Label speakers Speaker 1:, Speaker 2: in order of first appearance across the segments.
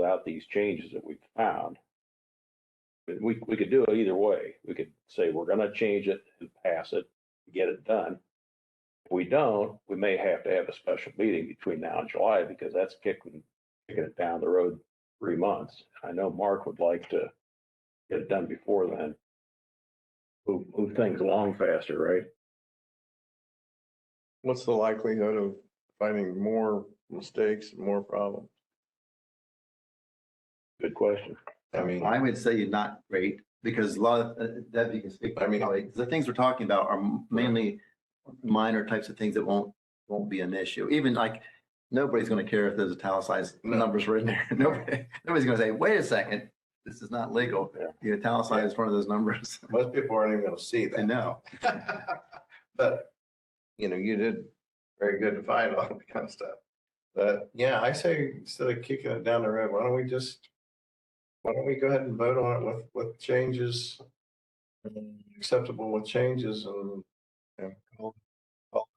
Speaker 1: out these changes that we found. But We, we could do it either way. We could say, we're gonna change it and pass it, get it done. If we don't, we may have to have a special meeting between now and July because that's kicking, kicking it down the road three months. I know Mark would like to get it done before then. Move, move things along faster, right?
Speaker 2: What's the likelihood of finding more mistakes, more problems?
Speaker 1: Good question.
Speaker 2: I mean,
Speaker 3: I would say not great, because a lot of, uh, Deb, you can speak,
Speaker 2: I
Speaker 3: I
Speaker 2: mean-
Speaker 3: mean, the things we're talking about are mainly minor types of things that won't, won't be an issue. Even like, nobody's gonna care if there's italicized
Speaker 2: No.
Speaker 3: numbers written there. Nobody, nobody's gonna say, wait a second, this is not legal.
Speaker 1: Yeah.
Speaker 3: You italicized one of those numbers.
Speaker 2: most people aren't even gonna see
Speaker 3: I
Speaker 2: that.
Speaker 3: know.
Speaker 2: But, you know, you did very good to find all that kind of stuff. But yeah, I say instead of kicking it down the road, why don't we just, why don't we go ahead and vote on it with, with changes? Acceptable with changes and, and call- call-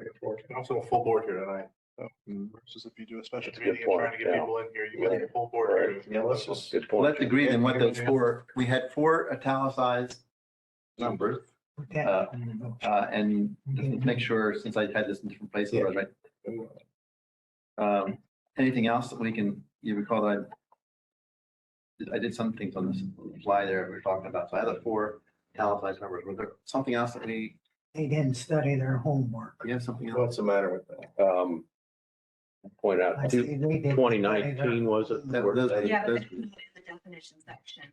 Speaker 2: take it forward.
Speaker 4: And also a full board here tonight, so
Speaker 2: Mm.
Speaker 4: versus if you do a special
Speaker 1: That's a good
Speaker 4: meeting and trying to
Speaker 1: point,
Speaker 4: get
Speaker 1: yeah.
Speaker 4: people in here, you got a full board here.
Speaker 2: Yeah, let's just
Speaker 1: Good point.
Speaker 3: Let's agree then what those four, we had four italicized numbers. Uh, uh, and just make sure, since I had this in different places, I was writing Um, anything else that we can, you recall that I, I did some things on the fly there we were talking about, so I had the four italicized numbers, was there something else that we,
Speaker 5: They didn't study their homework.
Speaker 3: we have something else?
Speaker 2: What's the matter with that?
Speaker 1: Um, point out,
Speaker 5: I see they didn't
Speaker 1: twenty
Speaker 5: study their-
Speaker 1: nineteen was it?
Speaker 3: That-
Speaker 1: Where
Speaker 3: those-
Speaker 1: they-
Speaker 6: Yeah, but
Speaker 3: those-
Speaker 6: that's in the definition section.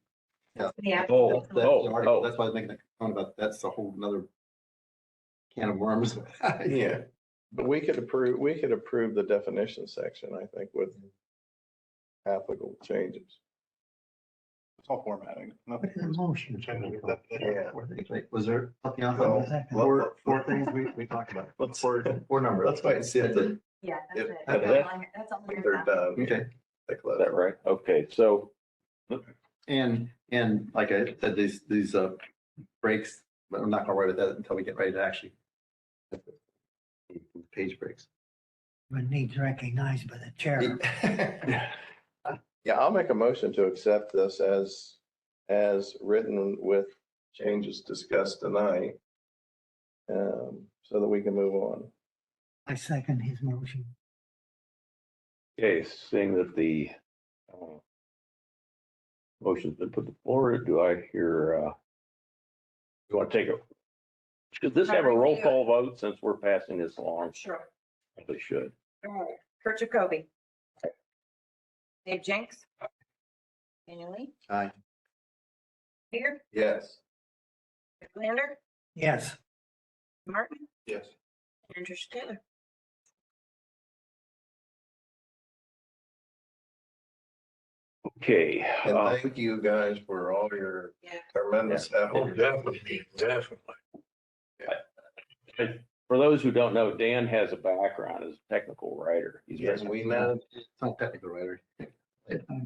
Speaker 3: Yeah.
Speaker 6: Yeah.
Speaker 1: Oh,
Speaker 3: That's the
Speaker 1: oh,
Speaker 3: article.
Speaker 1: oh.
Speaker 3: That's why I was making that comment about, that's a whole nother can of worms.
Speaker 2: Yeah, but we could approve, we could approve the definition section, I think, with applicable changes.
Speaker 4: It's all formatting, nothing.
Speaker 5: Put it in motion.
Speaker 4: Change the definition.
Speaker 2: Yeah.
Speaker 3: Wait, Was there something else?
Speaker 2: No.
Speaker 3: on
Speaker 5: Second.
Speaker 3: the Four, four things we, we talked about,
Speaker 2: Let's,
Speaker 3: four numbers.
Speaker 2: let's wait and see if the-
Speaker 6: Yeah,
Speaker 2: If-
Speaker 6: that's it.
Speaker 1: if
Speaker 6: That's all I- That's all. I
Speaker 2: they're
Speaker 6: have.
Speaker 2: done.
Speaker 3: Okay.
Speaker 2: They close.
Speaker 1: Is that right? Okay, so
Speaker 3: And, and like I said, these, these uh, breaks, but I'm not gonna worry about that until we get ready to actually. Page breaks.
Speaker 5: But needs recognized by the chair.
Speaker 2: Yeah, I'll make a motion to accept this as, as written with changes discussed tonight. Um, so that we can move on.
Speaker 5: I second his motion.
Speaker 1: Okay, seeing that the uh, motion's been put to the floor, do I hear, uh, you want to take a, should this have a roll call vote since we're passing this along?
Speaker 7: Sure.
Speaker 1: Probably should.
Speaker 7: Alright. Kurt Jacoby. Dave Jenks. Daniel Lee.
Speaker 3: Aye.
Speaker 7: Peter.
Speaker 2: Yes.
Speaker 7: Lander.
Speaker 5: Yes,
Speaker 7: Martin.
Speaker 4: Yes.
Speaker 7: And Tricia Taylor.
Speaker 1: Okay,
Speaker 2: And
Speaker 1: uh,
Speaker 2: thank you guys for all your
Speaker 7: Yeah.
Speaker 2: tremendous effort.
Speaker 4: definitely, definitely.
Speaker 1: for those who don't know, Dan has a background as a technical writer. He's
Speaker 2: Yes,
Speaker 1: been,
Speaker 2: we know.
Speaker 3: It's not technical, right?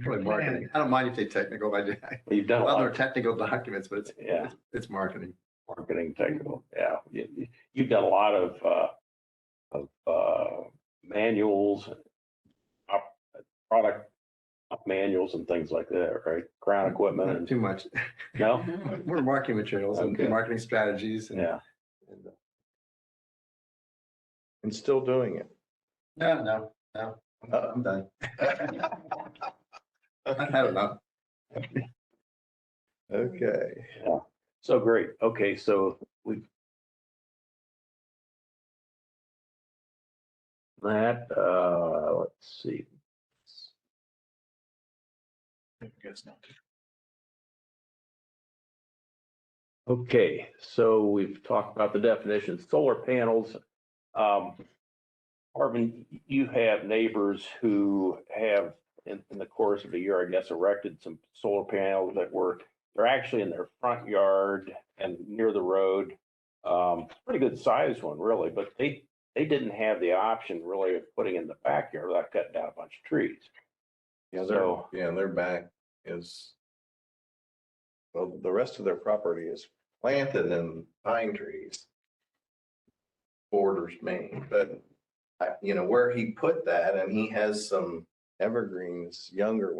Speaker 3: Probably marketing. I don't mind if they technical, I do.
Speaker 1: he's done a
Speaker 3: Well,
Speaker 1: lot
Speaker 3: they're
Speaker 1: of
Speaker 3: technical documents, but it's,
Speaker 1: Yeah.
Speaker 3: it's- it's marketing.
Speaker 1: marketing technical, yeah. You- you- You've done a lot of, uh, of, uh, manuals, op- product manuals and things like that, right? Ground equipment
Speaker 3: Not
Speaker 1: and,
Speaker 3: too much.
Speaker 1: no?
Speaker 3: We're marketing materials and
Speaker 1: Okay.
Speaker 3: marketing strategies and.
Speaker 1: Yeah,
Speaker 3: and-
Speaker 2: And still doing it.
Speaker 3: No, no, no,
Speaker 2: Uh,
Speaker 4: Uh-huh.
Speaker 3: I'm done. I've had enough.
Speaker 2: Okay.
Speaker 1: so great. Okay, so we. That, uh, let's see.
Speaker 4: Guess not.
Speaker 1: Okay, so we've talked about the definition, solar panels. Um, Arvin, you have neighbors who have, in, in the course of the year, I guess, erected some solar panels that were, they're actually in their front yard and near the road. Um, pretty good sized one, really, but they, they didn't have the option really of putting in the backyard without cutting down a bunch of trees.
Speaker 2: Yeah,
Speaker 1: So-
Speaker 2: their, yeah, their back is, well, the rest of their property is planted in pine trees. Borders Maine, but, I- you know, where he put that and he has some evergreen, this younger one.